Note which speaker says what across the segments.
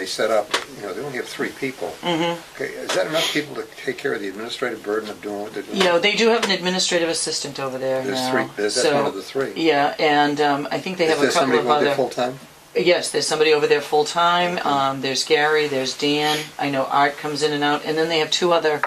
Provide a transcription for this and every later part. Speaker 1: they set up, you know, they only have three people.
Speaker 2: Mm-hmm.
Speaker 1: Okay, is that enough people to take care of the administrative burden of doing what they're doing?
Speaker 2: You know, they do have an administrative assistant over there
Speaker 1: There's
Speaker 2: now.
Speaker 1: three- there's- that's
Speaker 2: so-
Speaker 1: one of the three.
Speaker 2: Yeah, and um, I think they
Speaker 1: Is
Speaker 2: have a
Speaker 1: there
Speaker 2: couple
Speaker 1: somebody
Speaker 2: of
Speaker 1: going there
Speaker 2: other.
Speaker 1: full-time?
Speaker 2: yes, there's somebody over there full time. Um, there's Gary. There's Dan. I know Art comes in and out, and then they have two other.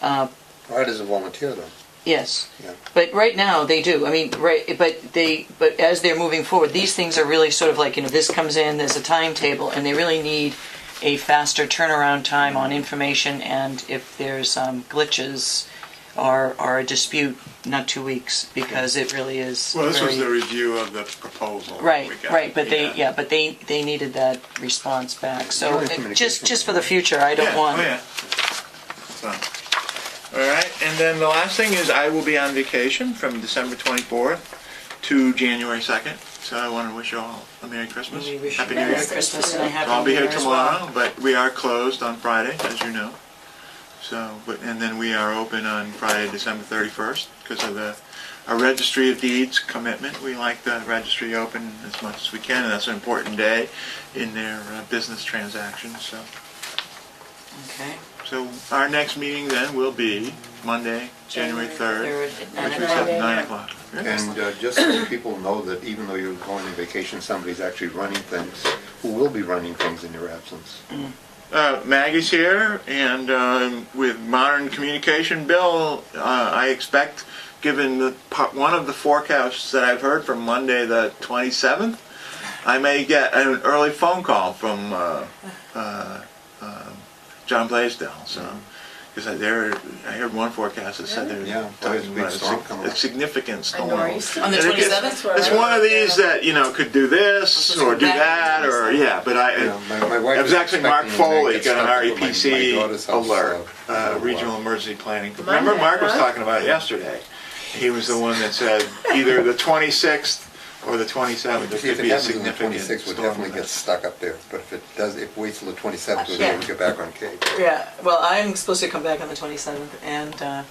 Speaker 2: Uh,
Speaker 1: Art is a volunteer though.
Speaker 2: yes.
Speaker 1: Yeah.
Speaker 2: But right now they do. I mean, right. But they. But as they're moving forward, these things are really sort of like you know this comes in. There's a timetable, and they really need a faster turnaround time on information. And if there's um, glitches or or a dispute, not two weeks because it really is.
Speaker 3: Well, this was
Speaker 2: very-
Speaker 3: the review of the proposal.
Speaker 2: Right,
Speaker 3: we got.
Speaker 2: right, but they, yeah, but they, they needed that response back, so
Speaker 1: Really
Speaker 2: it- just,
Speaker 1: communication.
Speaker 2: just for the future, I don't
Speaker 3: Yeah,
Speaker 2: want.
Speaker 3: Oh, yeah. So, all right, and then the last thing is I will be on vacation from December 24th to January 2nd. So I want to wish you all a Merry Christmas.
Speaker 2: We wish you
Speaker 3: Happy
Speaker 2: a
Speaker 3: New Year.
Speaker 2: Merry Christmas and a Happy
Speaker 3: I'll be
Speaker 2: New
Speaker 3: here
Speaker 2: Year as well.
Speaker 3: tomorrow, but we are closed on Friday, as you know. So, but, and then we are open on Friday, December 31st, because of the, our registry of deeds commitment. We like the registry open as much as we can, and that's an important day in their uh, business transactions, so.
Speaker 2: Okay.
Speaker 3: So our next meeting then will be Monday, January 3rd,
Speaker 2: at nine
Speaker 3: which is
Speaker 2: o'clock.
Speaker 3: at 9 o'clock.
Speaker 1: And uh, just so people know that even though you're going on vacation, somebody's actually running things, who will be running things in your absence.
Speaker 3: Uh, Maggie's here, and um, with modern communication, Bill, uh, I expect, given the po- one of the forecasts that I've heard from Monday the 27th, I may get an early phone call from uh, uh, um John Blaisdell. So, because I there, I heard one forecast that said
Speaker 1: Mm-hmm.
Speaker 3: there's
Speaker 1: Yeah, well, there's a big
Speaker 3: about a,
Speaker 1: storm
Speaker 3: sig-
Speaker 1: coming
Speaker 3: a
Speaker 1: up.
Speaker 3: significant storm.
Speaker 4: nor'easter?
Speaker 2: On the
Speaker 3: And it gets-
Speaker 2: 27th?
Speaker 3: It's one of these that you know could do this or do
Speaker 2: Back.
Speaker 3: that or yeah, but I.
Speaker 1: You know, my- my wife
Speaker 3: It was actually Mark
Speaker 1: expecting me to
Speaker 3: Foley
Speaker 1: get
Speaker 3: got
Speaker 1: stuff
Speaker 3: an
Speaker 1: with my- my daughter's house,
Speaker 3: REPC alert,
Speaker 1: uh,
Speaker 3: uh,
Speaker 1: uh,
Speaker 3: Regional Emergency Planning. Remember,
Speaker 4: Monday,
Speaker 3: Mark was
Speaker 4: huh?
Speaker 3: talking about it yesterday. He was the one that said either the 26th or the 27th, there
Speaker 1: See, if
Speaker 3: could
Speaker 1: it
Speaker 3: be a
Speaker 1: happens on the
Speaker 3: significant
Speaker 1: 26th, we'll definitely
Speaker 3: storm.
Speaker 1: get stuck up there, but if it does, if it waits till the 27th, we'll be able to get back on Cape.
Speaker 2: Yeah, well, I'm supposed to come back on the twenty-seventh, and, uh,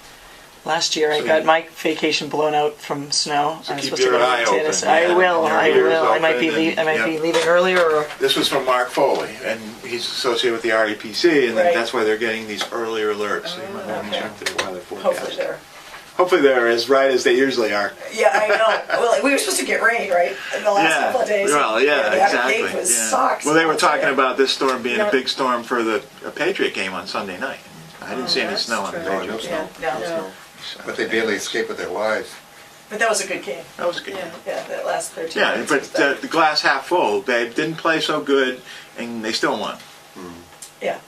Speaker 2: last year I
Speaker 3: So
Speaker 2: got
Speaker 3: you-
Speaker 2: my vacation blown out from snow.
Speaker 3: So
Speaker 2: I was
Speaker 3: keep
Speaker 2: supposed to
Speaker 3: your
Speaker 2: go to
Speaker 3: eye
Speaker 2: Montana,
Speaker 3: open,
Speaker 2: so I
Speaker 3: yeah,
Speaker 2: will,
Speaker 3: and your
Speaker 2: I
Speaker 3: ears
Speaker 2: will, I might be,
Speaker 3: open
Speaker 2: lea- I
Speaker 3: and-
Speaker 2: might be
Speaker 3: yeah.
Speaker 2: leaving earlier, or,
Speaker 3: This was from Mark Foley, and he's associated with the REPC, and
Speaker 4: Right.
Speaker 3: that's why they're getting these earlier alerts. So you might want to
Speaker 4: okay.
Speaker 3: check their weather
Speaker 4: Hopefully
Speaker 3: forecast.
Speaker 4: there.
Speaker 3: Hopefully they're as right as they usually are.
Speaker 4: Yeah, I know. Well, we were supposed to get rain, right? In the last couple of days.
Speaker 3: Well, yeah,
Speaker 4: the other
Speaker 3: exactly.
Speaker 4: Gate was
Speaker 3: yeah.
Speaker 4: socks.
Speaker 3: Well, they were talking about this storm being a
Speaker 4: No.
Speaker 3: big storm for the a Patriot game on Sunday night. I didn't see any
Speaker 4: Oh, that's
Speaker 3: snow on the
Speaker 4: true.
Speaker 1: No, no
Speaker 3: Patriots.
Speaker 1: snow,
Speaker 4: Yeah,
Speaker 1: no
Speaker 4: no.
Speaker 1: snow.
Speaker 3: so
Speaker 1: Oh, But they barely escape with their lives.
Speaker 4: But that was a good game.
Speaker 3: That was good.
Speaker 4: Yeah, that last 13
Speaker 3: Yeah,
Speaker 4: minutes
Speaker 3: but
Speaker 4: was
Speaker 3: the,
Speaker 4: that.
Speaker 3: the glass half full. They didn't play so good, and they still won.
Speaker 4: yeah.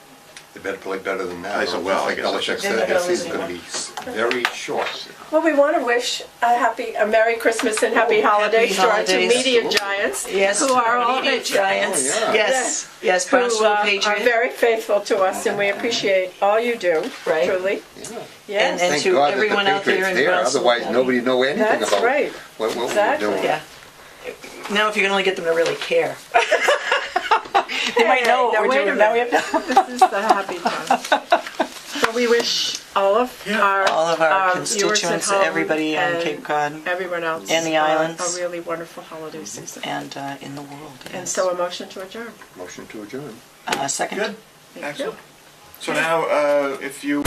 Speaker 1: They better play better than that.
Speaker 3: I said, well, I
Speaker 1: Like
Speaker 3: guess I
Speaker 1: Belichick
Speaker 3: should
Speaker 4: say.
Speaker 1: said,
Speaker 4: They're
Speaker 1: this
Speaker 4: not
Speaker 1: season's gonna
Speaker 4: losing
Speaker 1: be very short.
Speaker 5: Well, we want to wish a happy, a Merry Christmas and Oh, happy holidays to our two
Speaker 2: holidays.
Speaker 5: media giants.
Speaker 2: yes.
Speaker 5: Who are all,
Speaker 2: media giants,
Speaker 1: Oh, yeah.
Speaker 2: yes, yes,
Speaker 5: who
Speaker 2: Barnstable
Speaker 5: uh, are
Speaker 2: Patriot,
Speaker 5: very faithful to us and we appreciate all you do,
Speaker 2: Right.
Speaker 5: truly.
Speaker 1: Yeah.
Speaker 2: and,
Speaker 5: Yes,
Speaker 2: and
Speaker 1: Thank
Speaker 2: to
Speaker 1: God that the
Speaker 2: everyone out there in
Speaker 1: Patriots there,
Speaker 2: Barnstable
Speaker 1: otherwise
Speaker 2: County.
Speaker 1: nobody know anything
Speaker 5: That's
Speaker 1: about
Speaker 5: right.
Speaker 1: what what we're
Speaker 5: Exactly.
Speaker 1: doing.
Speaker 2: Yeah. Now, if you can only get them to really care. they might know what
Speaker 5: Now,
Speaker 2: we're
Speaker 5: wait a
Speaker 2: doing.
Speaker 5: minute, we have- This is the happy time. So we wish all of
Speaker 3: Yeah.
Speaker 5: our,
Speaker 2: All of our
Speaker 5: viewers at
Speaker 2: constituents,
Speaker 5: home
Speaker 2: everybody in
Speaker 5: and
Speaker 2: Cape Cod.
Speaker 5: Everyone else.
Speaker 2: and the
Speaker 5: uh,
Speaker 2: islands.
Speaker 5: A really wonderful holiday season.
Speaker 2: And uh, in the world.
Speaker 5: And
Speaker 2: yes.
Speaker 5: so a motion to adjourn.
Speaker 1: Motion to adjourn.
Speaker 2: uh, second.
Speaker 3: Good.
Speaker 5: Thank you.
Speaker 3: Excellent. So now, uh, if you.